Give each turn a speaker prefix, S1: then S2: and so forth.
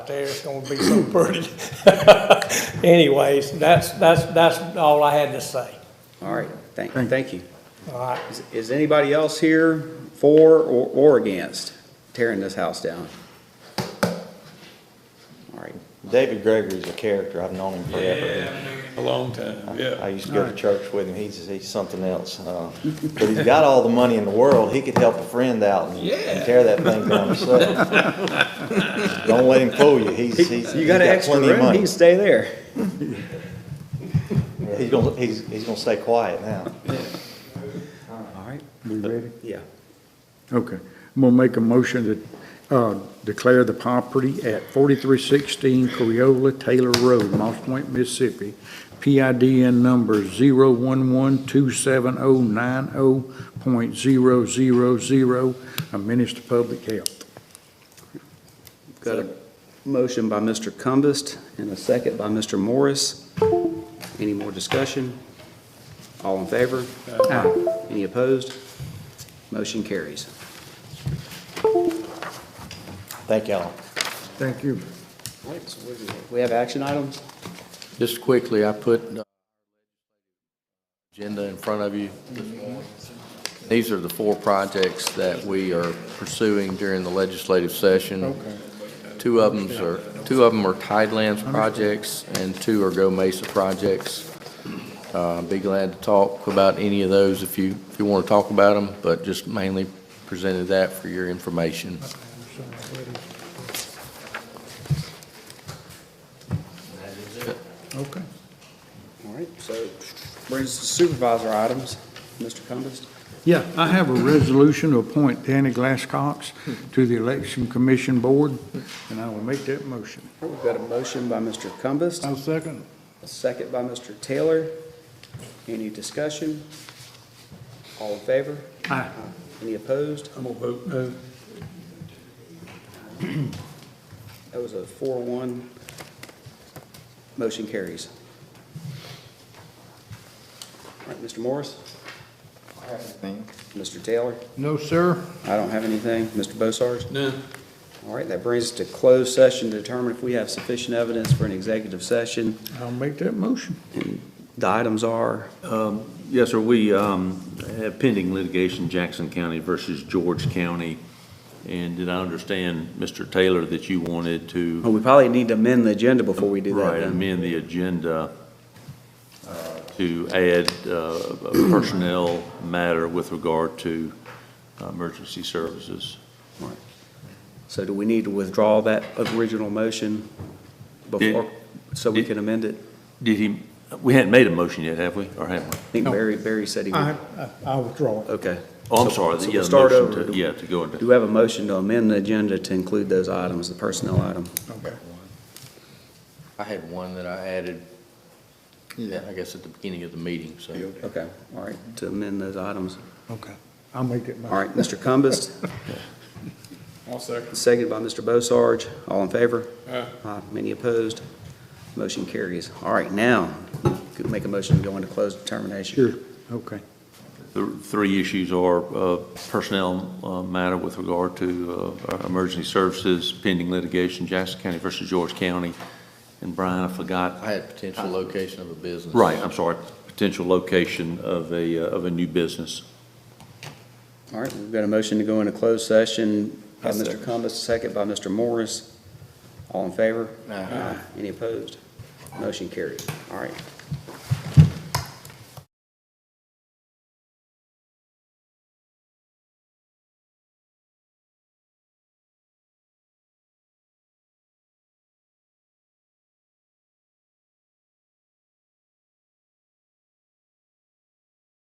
S1: there, it's gonna be so pretty. Anyways, that's, that's, that's all I had to say.
S2: All right, thank, thank you.
S1: All right,
S2: Is- Is anybody else here for or, or against tearing this house down? All right,
S3: David Gregory's a character. I've known him forever.
S4: A long time,
S3: I
S4: yeah.
S3: used to go to church with him. He's, he's something else. uh, But he's got all the money in the world. He could help a friend out and and tear that thing down himself. Don't let him fool you. He's, he's.
S2: You got an extra
S3: plenty of
S2: room,
S3: money.
S2: you can stay there.
S3: He's gonna, he's, he's gonna stay quiet now.
S2: All right,
S5: We ready?
S2: yeah.
S5: Okay. I'm gonna make a motion to, uh, declare the property at forty-three sixteen Coriola Taylor Road, Moss Point, Mississippi. PIDN number zero one one two seven oh nine oh point zero zero zero, a menace to public health.
S2: Got a motion by Mr. Cumbest and a second by Mr. Morris. Any more discussion? All in favor? Aye. Any opposed? Motion carries.
S3: Thank y'all.
S5: Thank you.
S2: We have action items?
S6: Just quickly, I put uh, agenda in front of you this morning. These are the four projects that we are pursuing during the legislative session. Two of them are, two of them are Tidelands projects, and two are Go Mesa projects. Uh, Be glad to talk about any of those if you, if you want to talk about them, but just mainly presented that for your information.
S5: Okay.
S2: All right, so brings us to supervisor items. Mr. Cumbest?
S5: Yeah, I have a resolution to appoint Danny Glasscox to the Election Commission Board, and I will make that motion.
S2: We've got a motion by Mr. Cumbest.
S5: second.
S2: A second by Mr. Taylor. Any discussion? All in favor?
S5: Aye.
S2: Any opposed?
S4: I'm gonna vote
S5: Uh,
S4: no.
S2: That was a four-one. Motion carries. All right, Mr. Morris? Mr. Taylor?
S5: No, sir.
S2: I don't have anything. Mr. Bossarge?
S4: No.
S2: All right, that brings us to closed session to determine if we have sufficient evidence for an executive session.
S5: I'll make that motion.
S2: The items are,
S7: Yes, sir, we um, have pending litigation, Jackson County versus George County. And did I understand, Mr. Taylor, that you wanted
S2: oh,
S7: to,
S2: we probably need to amend the agenda before we do that
S7: right,
S2: then.
S7: amend the agenda uh, to add uh, a personnel matter with regard to uh, emergency services?
S2: So do we need to withdraw that original motion before, so we can amend it?
S7: Did he, we hadn't made a motion yet, have we, or have we?
S2: I think Barry, Barry said he
S1: I,
S2: would.
S1: I- I withdraw.
S2: Okay.
S7: Oh, I'm
S2: So-
S7: sorry,
S2: so
S7: the
S2: we'll
S7: yeah,
S2: start
S7: motion
S2: over.
S7: to, yeah, to go into.
S2: Do we have a motion to amend the agenda to include those items, the personnel item?
S6: I had one that I added, I guess, at the beginning of the meeting, so.
S2: Okay, all right, to amend those items.
S5: Okay, I'll make that motion.
S2: All right, Mr. Cumbus,
S4: I'll second.
S2: seconded by Mr. Bossarge. All in favor?
S4: Aye.
S2: Many opposed? Motion carries. All right, now, could make a motion to go into closed determination.
S5: Sure, okay.
S7: The three issues are uh, personnel uh, matter with regard to uh, our emergency services, pending litigation, Jackson County versus George County. And Brian, I forgot,
S6: I had potential location of a business.
S7: right, I'm sorry, potential location of a, uh, of a new business.
S2: All right, we've got a motion to go into closed session by Mr. Cumbus, second by Mr. Morris. All in favor?
S6: Aye.
S2: Any opposed? Motion carried. All right.